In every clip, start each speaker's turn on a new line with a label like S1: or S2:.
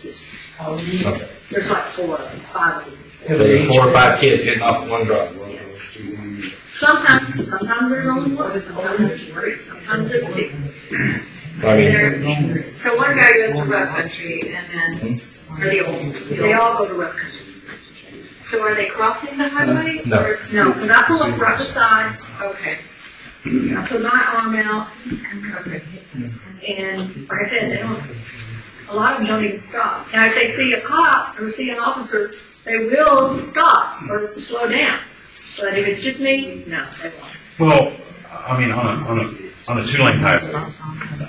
S1: this is, there's like four, of them, five of them.
S2: There's four or five kids hitting off one drug.
S1: Sometimes, sometimes there's only one, sometimes there's three, sometimes there's two.
S2: I mean,
S1: They're-
S3: So one guy goes to rough country and then, or the old,
S1: They
S3: the old,
S1: all go to rough country.
S3: so are they crossing the highway?
S2: No.
S3: Or-
S1: No, because I pull up right beside,
S3: Okay,
S1: I put my arm out,
S3: okay.
S1: and like I said, they don't, a lot of them don't even stop. Now, if they see a cop or see an officer, they will stop or slow down. But if it's just me, no, they won't.
S4: Well, I mean, on a, on a, on a two-lane highway,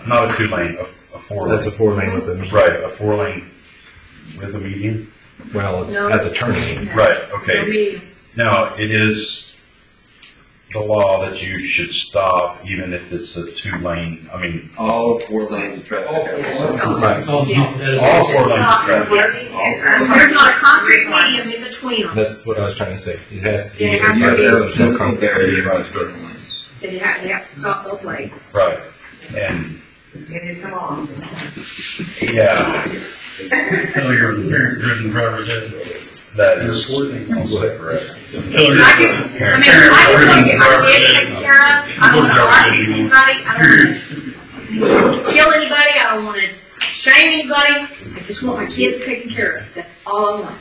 S4: not a two-lane, a, a
S2: that's
S4: four-lane.
S2: a four lane with a,
S4: Right, a four-lane with a median.
S2: well, it's- that's a turning.
S4: Right,
S1: No
S4: okay.
S1: medium.
S4: Now, it is the law that you should stop even if it's a two-lane, I mean,
S5: All four lanes of traffic.
S2: Right.
S4: all four lanes of
S1: Stop.
S4: traffic.
S1: There's not a concrete medium in between them.
S2: That's what I was trying to say. It has to be.
S1: Yeah, it has to be.
S2: There's no
S5: Very
S2: concrete.
S5: right, certain lanes.
S1: They have, they have to stop both ways.
S4: Right, and,
S3: It is a law.
S4: yeah,
S6: Failure of parent-driven driver dead.
S4: that
S6: That's
S4: is also correct.
S6: Failure.
S1: I just, I mean, I just want to get my kids taken care of. I don't want to argue with anybody. I don't want to kill anybody. I don't want to shame anybody. I just want my kids taken care of. That's all I want.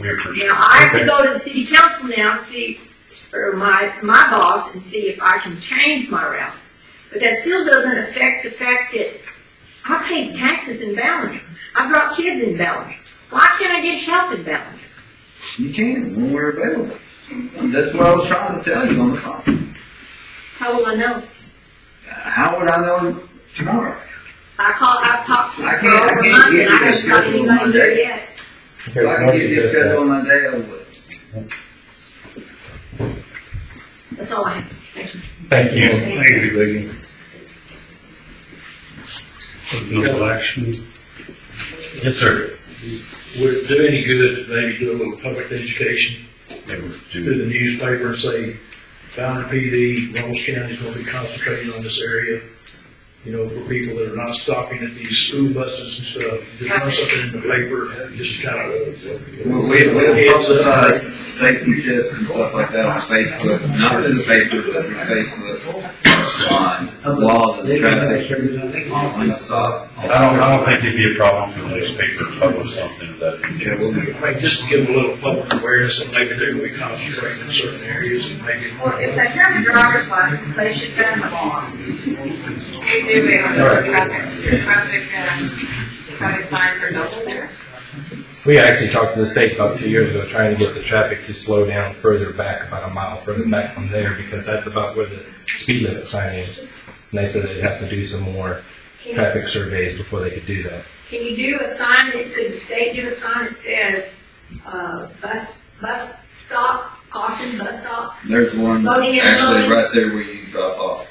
S4: We appreciate
S1: Now, I have to
S4: Okay.
S1: go to the city council now, see, or my, my boss, and see if I can change my route. But that still doesn't affect the fact that I pay taxes in Ballenger. I brought kids in Ballenger. Why can't I get help in Ballenger?
S5: You can, when we're available. That's what I was trying to tell you on the phone.
S1: How will I know?
S5: How would I know tomorrow?
S1: I call, I've talked to
S5: I
S1: her for
S5: can't- I
S1: over a
S5: can't
S1: month,
S5: get
S1: and I
S5: to this
S1: haven't got
S5: schedule on
S1: anybody there
S5: Monday.
S1: yet.
S5: If I can get this schedule on my day, I would.
S1: That's all I have. Thank you.
S2: Thank you.
S1: Thank
S6: No action.
S4: it. Yes, sir.
S6: Would it do any good if maybe do a little public education
S4: It was
S6: through
S4: due-
S6: the newspaper and say, Boundary PD, Ronald County's gonna be concentrating on this area? You know, for people that are not stopping at these school buses and stuff, just run something in the paper, just uh, kind of.
S5: We, we we
S6: Heads up.
S5: publicize safety tips and stuff like that on Facebook, not in the paper, but in Facebook, on laws and traffic, on lane stop.
S4: I don't, I don't think it'd be a problem for the newspaper to publish something that,
S5: Yeah, we'll do.
S6: I mean, just to give a little public awareness that maybe they're gonna be concentrating in certain areas and maybe.
S3: Well, if they have a driver's license, they should have them on. We do it on the traffic, traffic, um, traffic fines are double there.
S2: We actually talked to the state about two years ago, trying to get the traffic to slow down further back, about a mile further back from there, because that's about where the speed limit sign is. And they said they'd have to do some more
S1: Can
S2: traffic surveys before they could do that.
S1: can you do a sign that, could the state do a sign that says, uh, bus, bus stop, caution, bus stop?
S5: There's one
S1: Loading and
S5: actually
S1: unloading.
S5: right there where you drop off.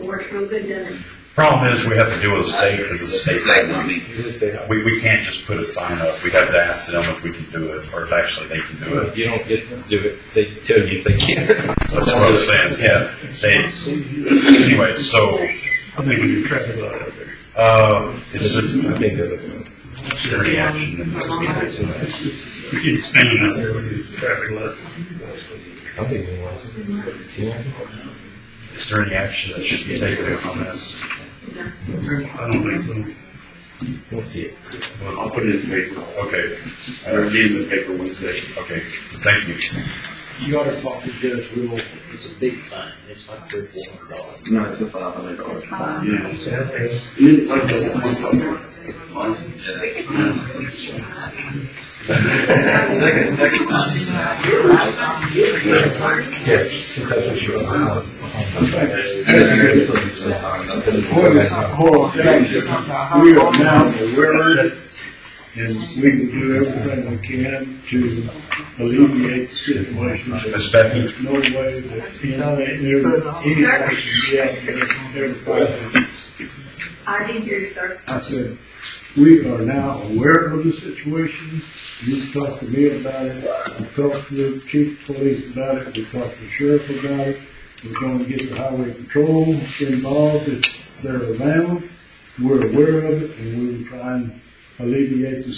S1: Works real good, doesn't it?
S4: problem is we have to deal with the state because the state.
S5: Like, I mean,
S4: We, we can't just put a sign up, we have to ask them if we can do it, or if actually they can do it.
S2: You don't get to do it, they tell you if they can.
S4: That's what I'm saying, yeah. They- Anyway, so,
S6: I think we can track it out there.
S4: uh,
S2: It's
S4: it's
S2: just,
S4: a,
S2: I think they're looking.
S4: dirty action.
S6: We can expand it out there with the traffic light.
S2: I don't think anyone else. Yeah.
S4: Is there any action that should be taken on this?
S6: I don't think
S2: We'll see.
S4: I'll put it in the paper. Okay. I'll be in the paper Wednesday. Okay, thank you.
S7: You ought to talk to Judge Rule, it's a big fine, it's like three, four hundred dollars.
S5: no, it's a five hundred dollar.
S6: so.
S5: Second, second time.
S2: Yes. That's what she wrote.
S8: We are now aware and we can do everything we can to alleviate the situation.
S4: Ms. Becky?
S8: There's no way that, you know, there's any action yet, everybody.
S1: I didn't hear you, sir.
S8: I said, we are now aware of the situation. You talked to me about it, I talked to the chief of police about it, we talked to the sheriff about it. We're gonna get the highway patrol involved if they're around. We're aware of it and we will try and alleviate the